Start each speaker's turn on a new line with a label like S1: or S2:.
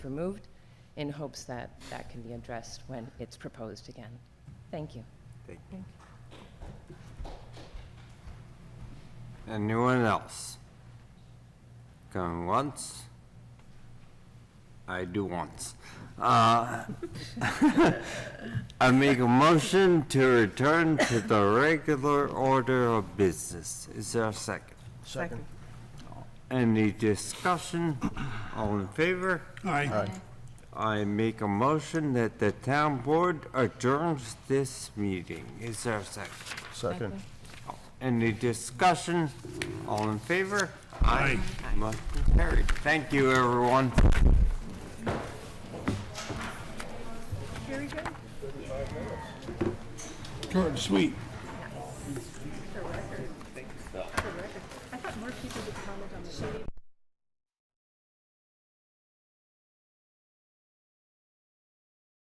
S1: removed in hopes that that can be addressed when it's proposed again. Thank you.
S2: Anyone else? Going once? I do once. Uh, I make a motion to return to the regular order of business. Is there a second?
S3: Second.
S2: Any discussion? All in favor?
S3: Aye.
S2: I make a motion that the town board adjourns this meeting. Is there a second?
S3: Second.
S2: Any discussion? All in favor?
S3: Aye.
S2: Motion carried. Thank you, everyone.
S3: Short and sweet.